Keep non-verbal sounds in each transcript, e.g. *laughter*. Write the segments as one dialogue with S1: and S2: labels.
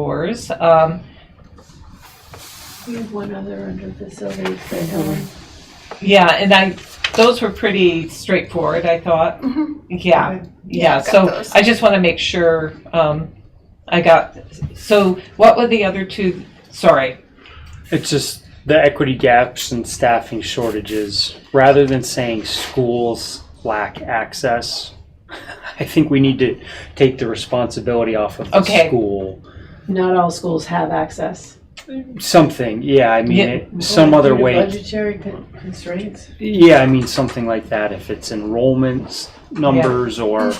S1: yours. Um,
S2: We have one other under facilities that um, Helen.
S1: yeah, and I, those were pretty straightforward, I thought.
S2: Mhm.
S1: Yeah,
S2: Okay.
S1: yeah,
S2: I've got
S1: so
S2: those.
S1: I just want to make sure, um, I got, so what were the other two? Sorry,
S3: It's just the equity gaps and staffing shortages. Rather than saying schools lack access, *laughs* I think we need to take the responsibility off of the
S1: Okay.
S3: school.
S2: Not all schools have access.
S3: Something, yeah. I mean,
S1: Yeah.
S3: it, some
S2: Well,
S3: other
S2: due to
S3: way.
S2: Budgetary con- constraints.
S3: Yeah, I mean something like that. If it's enrollments numbers or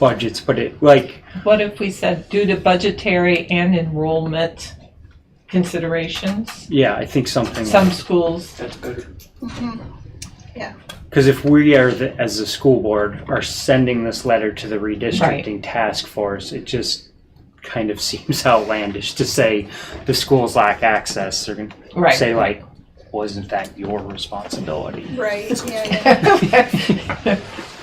S3: budgets, but it like
S1: what if we said due to budgetary and enrollment considerations?
S3: yeah, I think something.
S1: Some schools,
S4: That's better.
S3: Because if we are the, as the school board are sending this letter to the redistricting task force, it just kind of *laughs* seems outlandish to say the schools lack access. They're gonna
S1: right.
S3: say
S1: *laughs*
S3: like, wasn't that your responsibility?
S5: Right, yeah, yeah.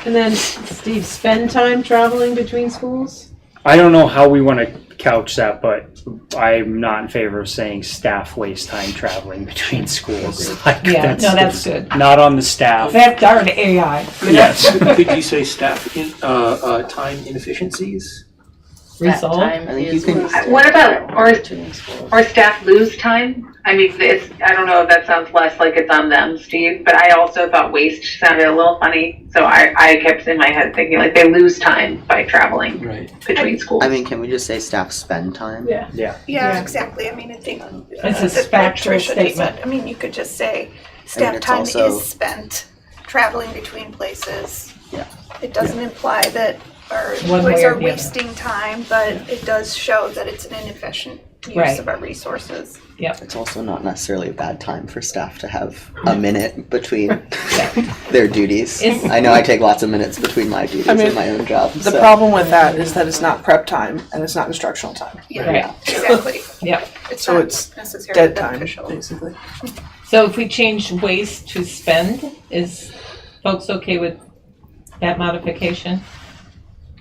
S2: And then, Steve, spend time traveling between schools?
S3: I don't know how we want to couch that, but I'm not in favor of saying staff waste time traveling between schools. *laughs* Like,
S1: Yeah, no, that's
S3: just
S1: good.
S3: Not on the staff.
S1: That darn AI. you know?
S3: Yes.
S4: *laughs* Could you say staff in, uh, uh, time inefficiencies?
S1: Result.
S4: I think you can-
S6: What about, or,
S2: Between schools.
S6: or staff lose time? I mean, it's, I don't know if that sounds less like it's on them, Steve, but I also thought waste sounded a little funny. So I, I kept in my head thinking like they lose time by traveling
S4: Right.
S6: between schools.
S7: I mean, can we just say staff spend time?
S2: Yeah. Yeah.
S5: Yeah, exactly. I mean, I think.
S1: It's a
S5: uh, that
S1: factual
S5: Tricia just
S1: statement.
S5: said. I mean, you could just say staff
S7: it's
S5: time
S7: also-
S5: is spent traveling between places.
S7: Yeah.
S5: It doesn't imply that our
S1: One way
S5: employees
S1: or
S5: are
S1: the other.
S5: wasting time, but it does show that it's an inefficient
S1: Right.
S5: use of our resources.
S7: It's also not necessarily a bad time for staff to have a minute between their duties.
S1: Is-
S7: I know I take lots of minutes between my duties and my own job.
S8: The
S7: so-
S8: problem with that is that it's not prep time and it's not instructional time.
S1: Right.
S5: Yeah,
S1: *laughs*
S5: exactly.
S1: Yeah.
S5: It's
S8: So
S5: not
S8: it's
S5: necessarily
S8: Dead time,
S5: beneficial.
S8: basically.
S1: So if we change waste to spend, is folks okay with that modification?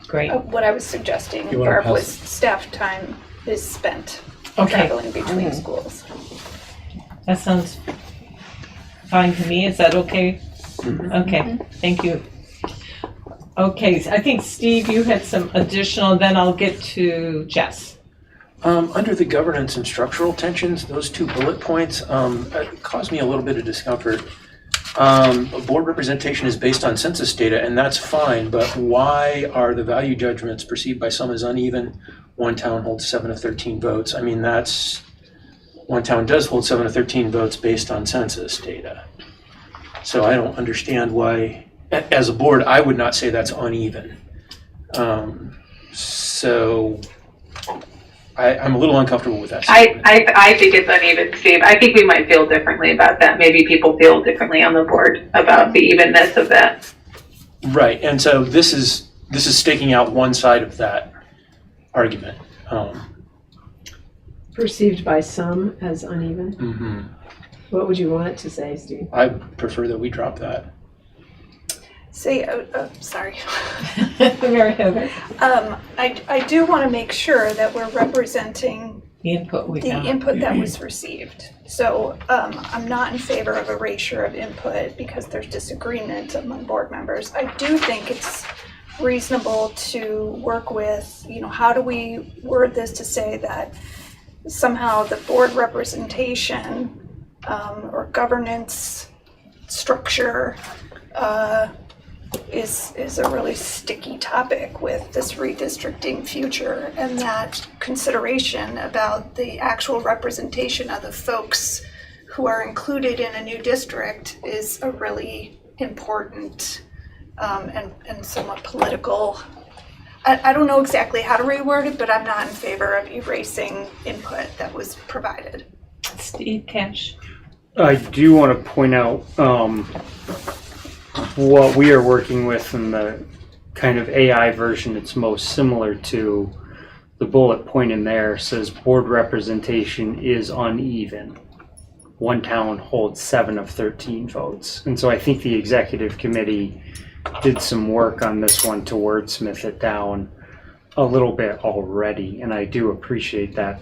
S1: Great,
S5: Uh, What I was suggesting,
S4: You wanna
S5: Barb,
S4: pass
S5: was staff time is spent
S1: okay, Mm-hmm.
S5: traveling between schools.
S1: that sounds fine to me, is that okay? Okay, thank you. Okay, so I think Steve, you had some additional, then I'll get to Jess.
S4: Um, under the governance and structural tensions, those two bullet points, um, uh, caused me a little bit of discomfort. Um, board representation is based on census data, and that's fine, but why are the value judgments perceived by some as uneven? One town holds seven of thirteen votes, I mean, that's, one town does hold seven of thirteen votes based on census data. So I don't understand why, a- as a board, I would not say that's uneven. Um, so I, I'm a little uncomfortable with that.
S6: I,
S4: statement.
S6: I, I think it's uneven, Steve. I think we might feel differently about that. Maybe people feel differently on the board about the evenness of that.
S4: Right, and so this is, this is staking out one side of that argument. Um,
S2: Perceived by some as uneven. What would you want it to say, Steve?
S4: I prefer that we drop that.
S5: Say, oh, oh, sorry.
S1: Mary Heather,
S5: Um, I, I do want to make sure that we're representing
S1: the input we
S5: the
S1: got.
S5: input that was received. So, um, I'm not in favor of erasure of input because there's disagreement among board members. I do think it's reasonable to work with, you know, how do we word this to say that somehow the board representation, um, or governance structure, uh, is, is a really sticky topic with this redistricting future and that consideration about the actual representation of the folks who are included in a new district is a really important um, and, and somewhat political. I, I don't know exactly how to reword it, but I'm not in favor of erasing input that was provided.
S1: Steve Cash,
S3: I do want to point out um, what we are working with in the kind of AI version that's most similar to the bullet point in there says board representation is uneven. One town holds seven of 13 votes. And so I think the executive committee did some work on this one to wordsmith it down a little bit already. And I do appreciate that